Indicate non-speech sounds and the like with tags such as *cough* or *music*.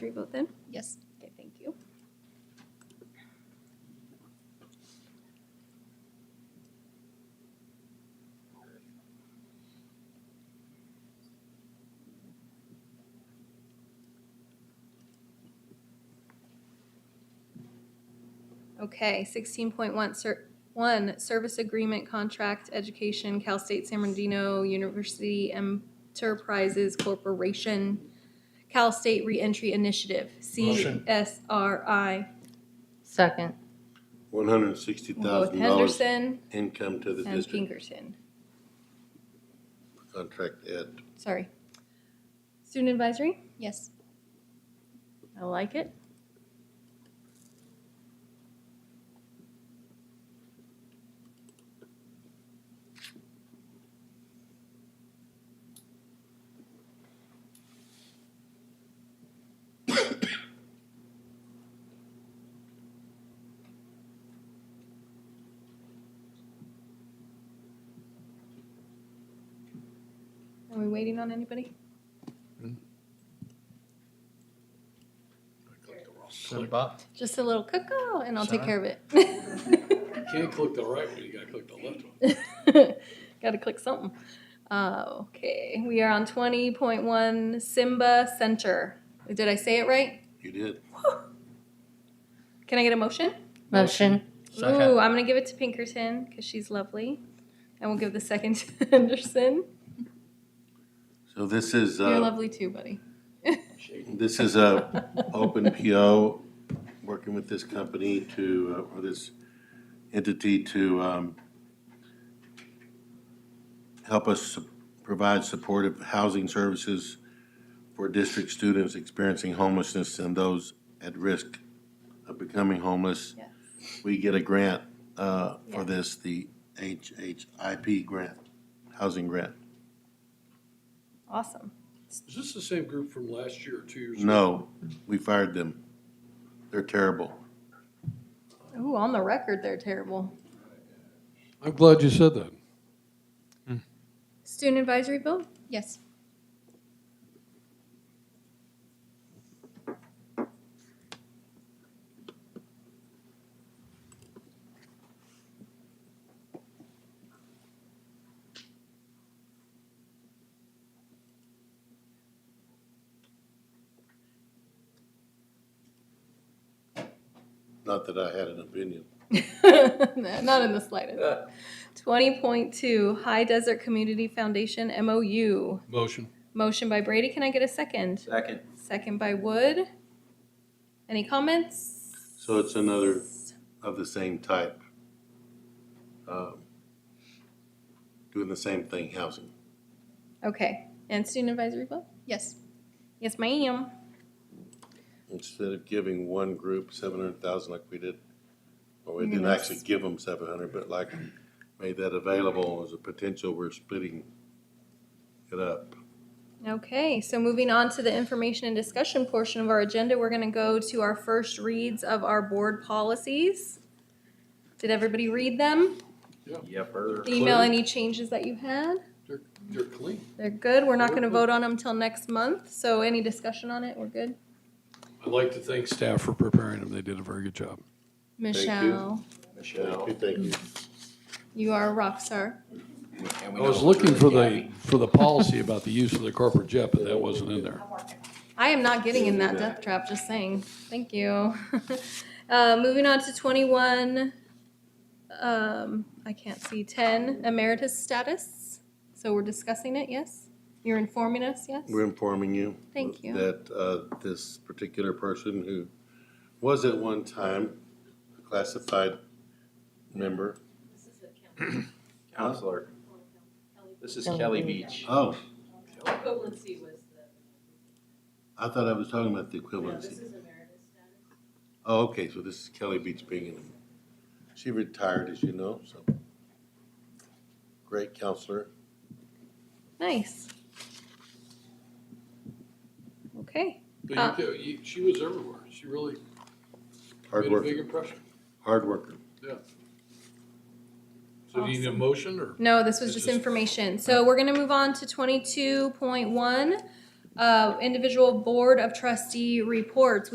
Your vote then? Yes. Okay, thank you. Okay, sixteen point one, ser- one, service agreement contract, education, Cal State San Bernardino University Enterprises Corporation, Cal State Reentry Initiative, Motion. CSRI. Second. One hundred and sixty Both thousand dollars Henderson income to the and district Pinkerton, contract ed. sorry. Student advisory, Yes. I like it. Are we waiting on anybody? Send Bob. Just a little cuckoo and I'll take Sorry. care of it. *laughs* You can't click the right one, you gotta click the left one. Got to click something. Uh, okay, we are on twenty point one Simba Center. Did I say it right? You did. Can I get a motion? Motion. Second. Ooh, I'm gonna give it to Pinkerton because she's lovely, and we'll give the second to *laughs* Henderson. So this is, You're uh, lovely too, buddy. this is a open PO, working with this company to, uh, or this entity to, um, help us su- provide supportive housing services for district students experiencing homelessness and those at risk of becoming homeless. Yes. We get a grant, uh, Yeah. for this, the HHIP grant, housing grant. Awesome. Is this the same group from last year or two years ago? No, we fired them. They're terrible. Ooh, on the record, they're terrible. I'm glad you said that. Student advisory vote. *laughs* Yes. Not that I had an opinion. No, Not in the slightest. Twenty point two High Desert Community Foundation MOU. Motion. Motion by Brady. Can I get a second? Second. Second by Wood. Any comments? So it's another of the same type. Um, Doing the same thing, housing. Okay. And student advisory vote? Yes. Yes, ma'am. Instead of giving one group seven hundred thousand like we did, or we You're didn't gonna actually give them seven hundred, but like made that available as a potential, we're splitting it up. Okay, so moving on to the information and discussion portion of our agenda, we're gonna go to our first reads of our board policies. Did everybody read them? Yep. er. Email any changes that you had? They're, they're clean. They're good. We're not gonna vote on them till next month, so any discussion on it, we're good. I'd like to thank staff for preparing them. They did a very good job. you. Michelle, Michelle. Thank you. you are a rock star. And we I know was we're looking through for the, Gabby. for the policy about the use of the corporate jet, but that wasn't in there. I am not getting in that death trap, just saying. Thank you. *laughs* Uh, moving on to twenty-one, um, I can't see, ten emeritus status. So we're discussing it, yes? You're informing us, yes? We're informing you. Thank you. That uh, this particular person who was at one time a classified member. Counselor. This is Kelly Beach. Oh, Equivalency was the, I thought I was talking about the no, this equivalency. is emeritus status. Oh, okay, so this is Kelly Beach Bingham. She retired, as you know, so. Great counselor. Nice. Okay, But you, you, she was everywhere. She really Hard made a worker, big impression. hard worker. Yeah. So do you need a motion or? no, this was It's just just- information. So we're gonna move on to twenty-two point one, Uh, individual board of trustee reports.